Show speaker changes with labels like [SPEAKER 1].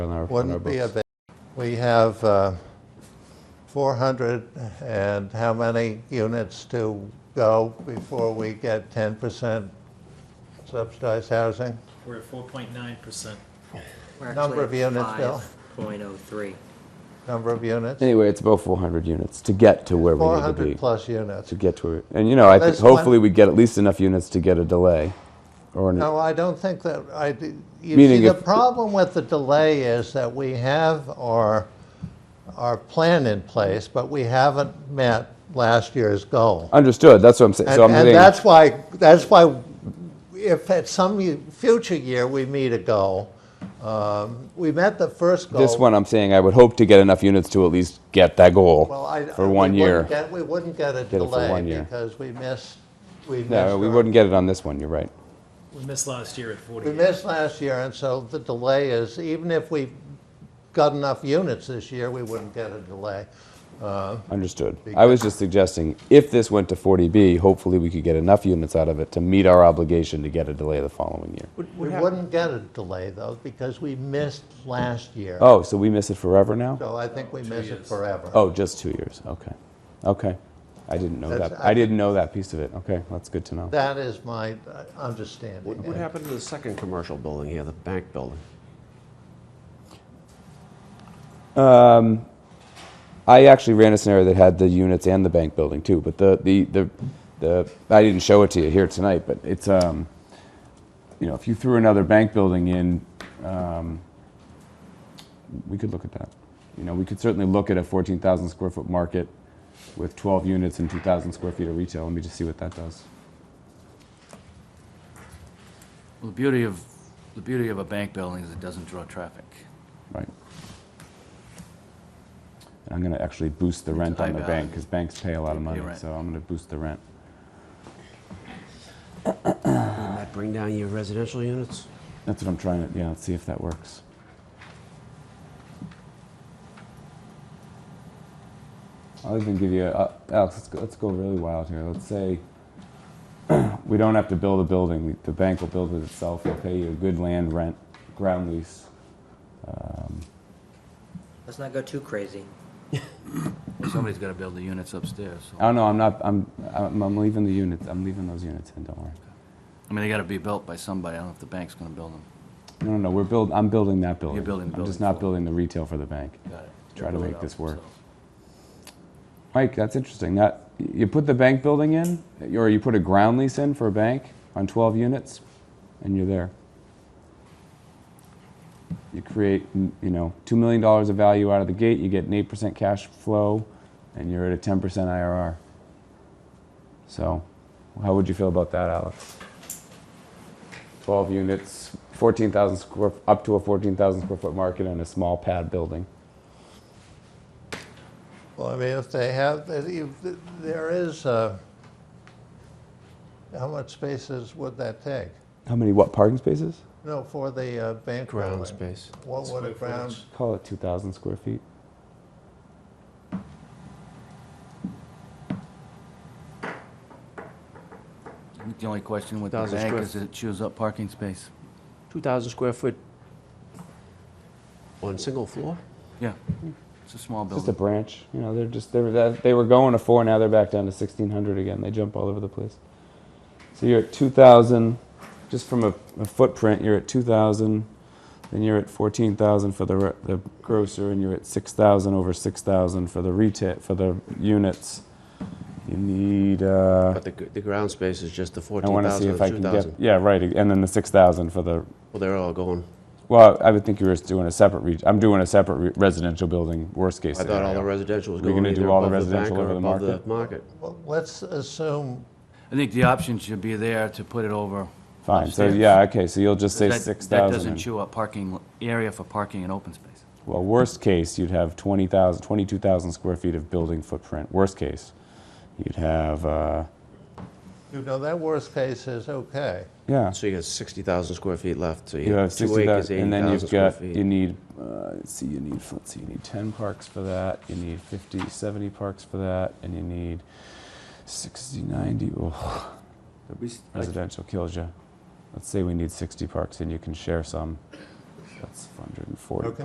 [SPEAKER 1] on our, on our
[SPEAKER 2] Wouldn't be a
[SPEAKER 1] books.
[SPEAKER 2] big, we have uh, 400 and how many units to go before we get 10% subsidized housing?
[SPEAKER 3] We're at four point nine percent.
[SPEAKER 4] We're
[SPEAKER 2] Number of
[SPEAKER 4] actually oh at
[SPEAKER 2] units, Bill?
[SPEAKER 4] 5.03.
[SPEAKER 2] Number of units?
[SPEAKER 1] Anyway, it's about 400 units to get to where we need to be.
[SPEAKER 2] 400 plus units.
[SPEAKER 1] To get to it. And, you know, I think
[SPEAKER 2] There's one-
[SPEAKER 1] hopefully we get at least enough units to get a delay or an,
[SPEAKER 2] No, I don't think that, I, d- you see,
[SPEAKER 1] Meaning
[SPEAKER 2] the
[SPEAKER 1] if-
[SPEAKER 2] problem with the delay is that we have our, our plan in place, but we haven't met last year's goal.
[SPEAKER 1] Understood, that's what I'm saying. So I'm
[SPEAKER 2] And, and
[SPEAKER 1] saying-
[SPEAKER 2] that's why, that's why if at some ye- future year we meet a goal, um, we met the first goal.
[SPEAKER 1] This one, I'm saying I would hope to get enough units to at least get that goal
[SPEAKER 2] Well, I- uh,
[SPEAKER 1] for
[SPEAKER 2] we
[SPEAKER 1] one
[SPEAKER 2] wouldn't
[SPEAKER 1] year.
[SPEAKER 2] get- We wouldn't get a
[SPEAKER 1] it for one
[SPEAKER 2] delay
[SPEAKER 1] year.
[SPEAKER 2] because we missed, we missed.
[SPEAKER 1] No, we
[SPEAKER 2] our-
[SPEAKER 1] wouldn't get it on this one, you're right.
[SPEAKER 3] We missed last year at forty.
[SPEAKER 2] We missed last year, and so the delay is, even if we got enough units this year, we wouldn't get a delay.
[SPEAKER 1] Understood. I was just suggesting, if this went to 40B, hopefully we could get enough units out of it to meet our obligation to get a delay the following year.
[SPEAKER 2] We wouldn't get a delay, though, because we missed last year.
[SPEAKER 1] Oh, so we miss it forever now?
[SPEAKER 2] So I think we miss it
[SPEAKER 3] years.
[SPEAKER 2] forever.
[SPEAKER 1] Oh, just two years, okay. Okay, I didn't know
[SPEAKER 2] That's-
[SPEAKER 1] that,
[SPEAKER 2] I-
[SPEAKER 1] I didn't know that piece of it, okay, that's good to know.
[SPEAKER 2] That is my uh, understanding.
[SPEAKER 5] What, what happened to the second commercial building here, the bank building?
[SPEAKER 1] I actually ran a scenario that had the units and the bank building too, but the, the, the, the I didn't show it to you here tonight, but it's, um, you know, if you threw another bank building in, um, we could look at that. You know, we could certainly look at a 14,000 square foot market with 12 units and 2,000 square feet of retail. Let me just see what that does.
[SPEAKER 6] Well, the beauty of, the beauty of a bank building is it doesn't draw traffic.
[SPEAKER 1] Right. And I'm going to actually boost the rent on the bank
[SPEAKER 6] high value.
[SPEAKER 1] because banks pay a lot of
[SPEAKER 6] They pay
[SPEAKER 1] money,
[SPEAKER 6] rent.
[SPEAKER 1] so I'm going to boost the rent.
[SPEAKER 5] Did that Uh, bring down your residential units?
[SPEAKER 1] That's what I'm trying to, yeah, let's see if that works. I'll even give you, uh, Alex, let's go, let's go really wild here. Let's say we don't have to build a building. We, the bank will build it itself. They'll pay you a good land rent, ground lease.
[SPEAKER 4] Let's not go too crazy.
[SPEAKER 6] Somebody's gotta build the units upstairs, so,
[SPEAKER 1] Oh no, I'm not. I'm I'm, I'm leaving the units. I'm leaving those units in. Don't worry.
[SPEAKER 6] I mean, they gotta be built by somebody, I don't know if the bank's gonna build them.
[SPEAKER 1] No, no, no. We're build. I'm building that building.
[SPEAKER 6] building the
[SPEAKER 1] I'm just
[SPEAKER 6] building
[SPEAKER 1] not
[SPEAKER 6] for-
[SPEAKER 1] building the retail for the bank.
[SPEAKER 6] Got it.
[SPEAKER 1] Try to
[SPEAKER 6] Build it
[SPEAKER 1] make
[SPEAKER 6] up,
[SPEAKER 1] this work.
[SPEAKER 6] so.
[SPEAKER 1] Mike, that's interesting. That you put the bank building in, or you put a ground lease in for a bank on 12 units, and you're there. You create, mm, you know, two million dollars of value out of the gate. You get an eight percent cash flow, and you're at a 10 percent IRR. So, how would you feel about that, Alex? 12 units, 14,000 square, up to a 14,000 square foot market, and a small pad building.
[SPEAKER 2] Well, I mean, if they have, if there is, uh, how much spaces would that take?
[SPEAKER 1] How many what parking spaces?
[SPEAKER 2] No, for the uh, bank
[SPEAKER 5] Ground
[SPEAKER 2] building.
[SPEAKER 5] space.
[SPEAKER 2] What would a
[SPEAKER 3] Square
[SPEAKER 2] ground,
[SPEAKER 3] footage.
[SPEAKER 1] Call it 2,000 square feet.
[SPEAKER 6] I think The only question with the
[SPEAKER 5] Thousand
[SPEAKER 6] bank
[SPEAKER 5] square
[SPEAKER 6] is it chews up parking space.
[SPEAKER 5] 2,000 square foot on single floor?
[SPEAKER 6] Yeah, it's a small
[SPEAKER 1] It's just a
[SPEAKER 6] building.
[SPEAKER 1] branch. You know, they're just they were that, they were going to four. Now they're back down to 1,600 again. They jump all over the place. So you're at 2,000, just from a, a footprint. You're at 2,000, then you're at 14,000 for the re- the grocer, and you're at 6,000 over 6,000 for the retail for the units. You need. Uh,
[SPEAKER 5] But the, gr- the ground space is just the
[SPEAKER 1] I want to see
[SPEAKER 5] 14,000
[SPEAKER 1] if I
[SPEAKER 5] and
[SPEAKER 1] can get
[SPEAKER 5] 2,000.
[SPEAKER 1] yeah right, and then the 6,000 for the
[SPEAKER 5] Well, they're all going.
[SPEAKER 1] Well, I would think you were just doing a separate, re- I'm doing a separate re- residential building, worst case
[SPEAKER 5] I thought all the
[SPEAKER 1] scenario.
[SPEAKER 5] residential was
[SPEAKER 1] We're
[SPEAKER 5] going
[SPEAKER 1] gonna do
[SPEAKER 5] either
[SPEAKER 1] all the
[SPEAKER 5] above the bank
[SPEAKER 1] residential
[SPEAKER 5] or
[SPEAKER 1] over the
[SPEAKER 5] above the
[SPEAKER 1] market?
[SPEAKER 5] market.
[SPEAKER 2] well, let's assume,
[SPEAKER 6] I think the option should be there to put it over
[SPEAKER 1] Fine, so
[SPEAKER 6] upstairs.
[SPEAKER 1] yeah, okay, so you'll just say
[SPEAKER 6] That-
[SPEAKER 1] six
[SPEAKER 6] That doesn't
[SPEAKER 1] thousand.
[SPEAKER 6] chew up parking, area for parking and open space.
[SPEAKER 1] Well, worst case, you'd have twenty thousand, twenty-two thousand square feet of building footprint, worst case. You'd have, uh,
[SPEAKER 2] you know, that worst case is okay.
[SPEAKER 1] yeah,
[SPEAKER 5] So you got 60,000 square feet left, so
[SPEAKER 1] you
[SPEAKER 5] you
[SPEAKER 1] have
[SPEAKER 5] have two
[SPEAKER 1] sixty
[SPEAKER 5] acres,
[SPEAKER 1] thousand, and then
[SPEAKER 5] 80,000
[SPEAKER 1] you've
[SPEAKER 5] square
[SPEAKER 1] got, you
[SPEAKER 5] feet.
[SPEAKER 1] need, uh, let's see, you need, let's see, you need ten parks for that, you need 50, 70 parks for that, and you need sixty, ninety, oh. Residential kills you. Let's say we need 60 parks and you can share some. That's 140.
[SPEAKER 2] Okay.